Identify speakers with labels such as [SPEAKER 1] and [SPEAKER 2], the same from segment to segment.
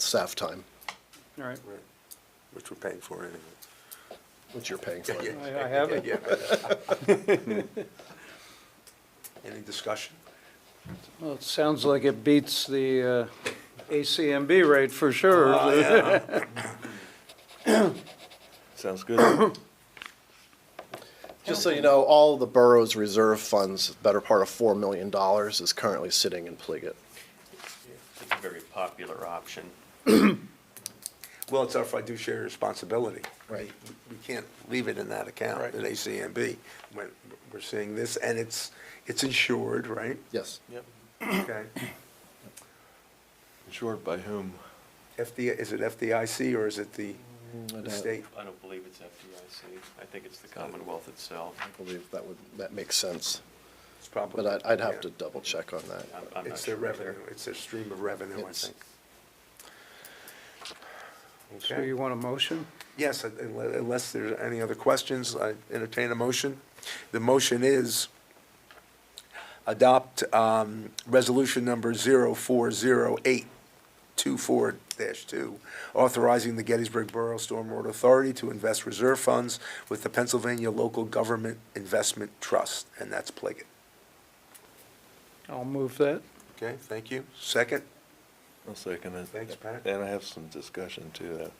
[SPEAKER 1] staff time,
[SPEAKER 2] All right,
[SPEAKER 3] Right, Which we're paying for anyway.
[SPEAKER 1] which you're paying for.
[SPEAKER 2] I I have it.
[SPEAKER 3] Yeah, yeah. Any discussion?
[SPEAKER 2] Well, it sounds like it beats the uh, ACMB rate for sure.
[SPEAKER 4] Sounds good.
[SPEAKER 1] Just so you know, all the borough's reserve funds, better part of $4 million, is currently sitting in Pliget.
[SPEAKER 5] It's a very popular option.
[SPEAKER 3] Well, it's our fiduciary responsibility.
[SPEAKER 1] Right.
[SPEAKER 3] We can't leave it in that account at ACMB when we're seeing this, and it's, it's insured, right?
[SPEAKER 1] Yes.
[SPEAKER 3] Okay.
[SPEAKER 4] Insured by whom?
[SPEAKER 3] FD, is it FDIC or is it the Mm, the
[SPEAKER 1] don't-
[SPEAKER 3] state?
[SPEAKER 5] I don't believe it's FDIC. I think it's the Commonwealth itself.
[SPEAKER 1] I believe that would, that makes sense,
[SPEAKER 3] It's probably.
[SPEAKER 1] but I'd, I'd have
[SPEAKER 3] yeah.
[SPEAKER 1] to double check on that.
[SPEAKER 5] I'm- I'm not
[SPEAKER 3] It's their
[SPEAKER 5] sure either.
[SPEAKER 3] revenue, it's their stream of revenue, I
[SPEAKER 1] It's-
[SPEAKER 3] think.
[SPEAKER 2] So
[SPEAKER 3] Okay.
[SPEAKER 2] you want a motion?
[SPEAKER 3] Yes, unle- unless there's any other questions, I entertain a motion. The motion is adopt um, resolution number 040824-2, authorizing the Gettysburg Borough Stormwater Authority to invest reserve funds with the Pennsylvania Local Government Investment Trust, and that's Pliggett.
[SPEAKER 2] I'll move that.
[SPEAKER 3] Okay, thank you. Second?
[SPEAKER 4] I'll second it.
[SPEAKER 3] Thanks, Pat.
[SPEAKER 4] And I have some discussion too.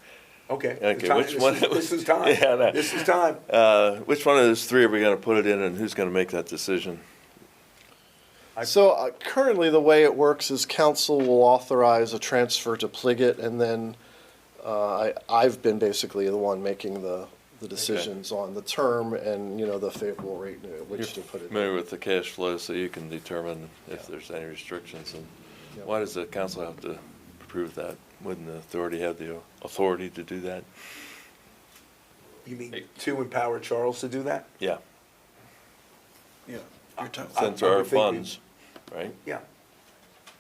[SPEAKER 3] Okay.
[SPEAKER 4] Okay,
[SPEAKER 3] Time-
[SPEAKER 4] which
[SPEAKER 3] this
[SPEAKER 4] one-
[SPEAKER 3] is- This is time.
[SPEAKER 4] Yeah, I know.
[SPEAKER 3] This is time.
[SPEAKER 4] Uh, which one of those three are we gonna put it in and who's gonna make that decision?
[SPEAKER 3] I-
[SPEAKER 1] So uh, currently, the way it works is council will authorize a transfer to Pliget, and then uh, I, I've been basically the one making the, the decisions on the term and, you know, the favorable rate at which to put it.
[SPEAKER 4] Familiar with the cash flow, so you can determine if there's any restrictions and
[SPEAKER 1] Yeah.
[SPEAKER 4] why does the council have to approve that? Wouldn't the authority have the authority to do that?
[SPEAKER 3] You mean to empower Charles to do that?
[SPEAKER 4] Yeah,
[SPEAKER 6] Yeah, you're talking,
[SPEAKER 3] I-
[SPEAKER 4] since
[SPEAKER 3] I would
[SPEAKER 4] there are
[SPEAKER 3] think we-
[SPEAKER 4] funds, right?
[SPEAKER 3] Yeah.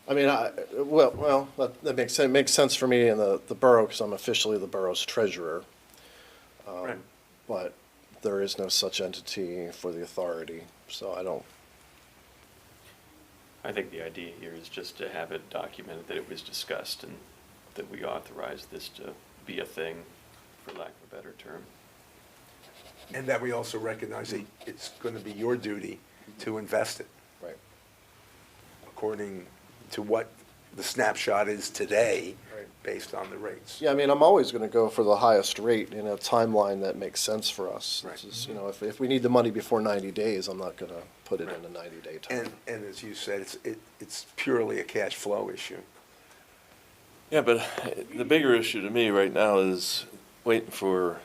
[SPEAKER 1] I mean, I, well, well, that, that makes, sense. makes sense for me in the, the borough, because I'm officially the borough's treasurer,
[SPEAKER 3] Right.
[SPEAKER 1] but there is no such entity for the authority, so I don't,
[SPEAKER 5] I think the idea here is just to have it documented that it was discussed and that we authorized this to be a thing, for lack of a better term.
[SPEAKER 3] And that we also recognize that it's going to be your duty to invest it
[SPEAKER 1] right.
[SPEAKER 3] according to what the snapshot is today,
[SPEAKER 1] Right.
[SPEAKER 3] based on the rates.
[SPEAKER 1] Yeah, I mean, I'm always gonna go for the highest rate in a timeline that makes sense for us.
[SPEAKER 3] Right.
[SPEAKER 1] This is, You know, if, if we need the money before ninety days, I'm not gonna put it in a
[SPEAKER 3] Right.
[SPEAKER 1] ninety-day time.
[SPEAKER 3] And, and as you said, it's, it- it's purely a cash flow issue.
[SPEAKER 4] Yeah, but uh, the bigger issue to me right now is waiting for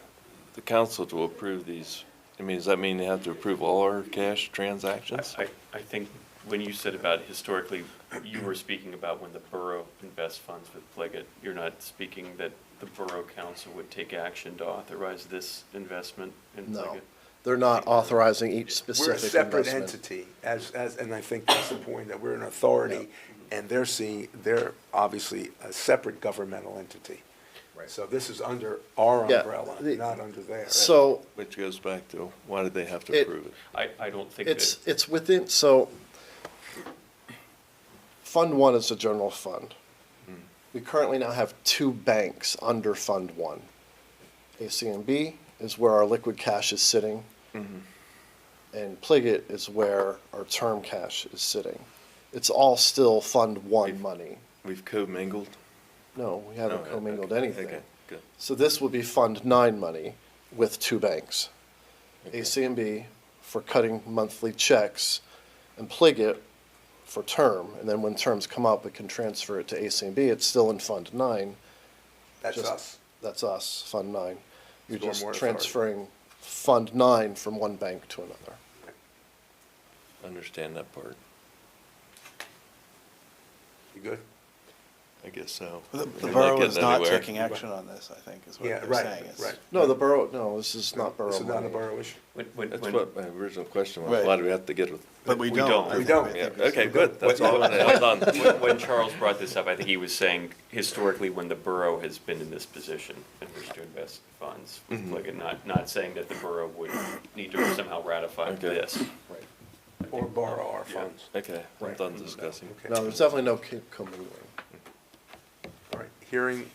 [SPEAKER 4] the council to approve these. I mean, does that mean they have to approve all our cash transactions?
[SPEAKER 5] I, I think when you said about historically, you were speaking about when the borough invests funds with Pliget. You're not speaking that the borough council would take action to authorize this investment in
[SPEAKER 1] No,
[SPEAKER 5] Pliget?
[SPEAKER 1] they're not authorizing each
[SPEAKER 3] uh, We're a
[SPEAKER 1] specific
[SPEAKER 3] separate
[SPEAKER 1] investment.
[SPEAKER 3] entity, as, as, and I think that's the point, that we're an authority, and they're seeing, they're obviously a separate governmental entity.
[SPEAKER 1] Right.
[SPEAKER 3] So this is under our
[SPEAKER 1] Yeah,
[SPEAKER 3] umbrella,
[SPEAKER 1] the-
[SPEAKER 3] not under theirs.
[SPEAKER 1] So,
[SPEAKER 4] Which goes back to, why did they have
[SPEAKER 1] It-
[SPEAKER 4] to approve it?
[SPEAKER 5] I, I don't think that.
[SPEAKER 1] It's, it's within, so, Fund One is a general fund.
[SPEAKER 4] Hmm.
[SPEAKER 1] We currently now have two banks under Fund One. ACMB is where our liquid cash is sitting.
[SPEAKER 4] Mm-hmm.
[SPEAKER 1] And Pliget is where our term cash is sitting. It's all still Fund One money.
[SPEAKER 4] We've co-mingled?
[SPEAKER 1] No, we haven't
[SPEAKER 4] No,
[SPEAKER 1] commingled
[SPEAKER 4] Oh, okay,
[SPEAKER 1] anything.
[SPEAKER 4] Okay, good.
[SPEAKER 1] So this will be Fund Nine money with two banks, ACMB for cutting monthly checks and Pliget for term. And then when terms come up, we can transfer it to ACMB. It's still in Fund Nine.
[SPEAKER 3] That's
[SPEAKER 1] just-
[SPEAKER 3] us.
[SPEAKER 1] That's us, Fund Nine. You're just
[SPEAKER 3] Stormwater Authority.
[SPEAKER 1] transferring Fund Nine from one bank to another.
[SPEAKER 4] Understand that part.
[SPEAKER 3] You good?
[SPEAKER 4] I guess so.
[SPEAKER 6] the the
[SPEAKER 4] We're
[SPEAKER 6] borough is
[SPEAKER 4] getting
[SPEAKER 6] not
[SPEAKER 4] anywhere.
[SPEAKER 6] taking action on this, I think, is what
[SPEAKER 3] Yeah,
[SPEAKER 6] they're
[SPEAKER 3] right,
[SPEAKER 6] saying. It's-
[SPEAKER 3] right.
[SPEAKER 1] No, the borough, no, this is not borough
[SPEAKER 3] This is not a
[SPEAKER 1] money.
[SPEAKER 3] borough issue.
[SPEAKER 5] When, when,
[SPEAKER 4] That's
[SPEAKER 5] when-
[SPEAKER 4] what my original question was,
[SPEAKER 6] Right.
[SPEAKER 4] why do we have to get with?
[SPEAKER 6] But we
[SPEAKER 5] We
[SPEAKER 6] don't.
[SPEAKER 5] don't.
[SPEAKER 6] I
[SPEAKER 3] We
[SPEAKER 6] think-
[SPEAKER 3] don't.
[SPEAKER 6] I
[SPEAKER 4] Yeah,
[SPEAKER 6] think it's-
[SPEAKER 4] okay, good, that's
[SPEAKER 3] What-
[SPEAKER 4] all, I'm done.
[SPEAKER 5] when, when Charles brought this up, I think he was saying historically when the borough has been in this position and wished to invest funds, like, and not, not saying that the borough would need to somehow ratify
[SPEAKER 4] Okay.
[SPEAKER 5] this.
[SPEAKER 1] Right.
[SPEAKER 3] Or borrow our funds.
[SPEAKER 4] Okay, I'm done discussing.
[SPEAKER 3] Okay.
[SPEAKER 1] No, there's definitely no co- commingling.
[SPEAKER 3] All right. Hearing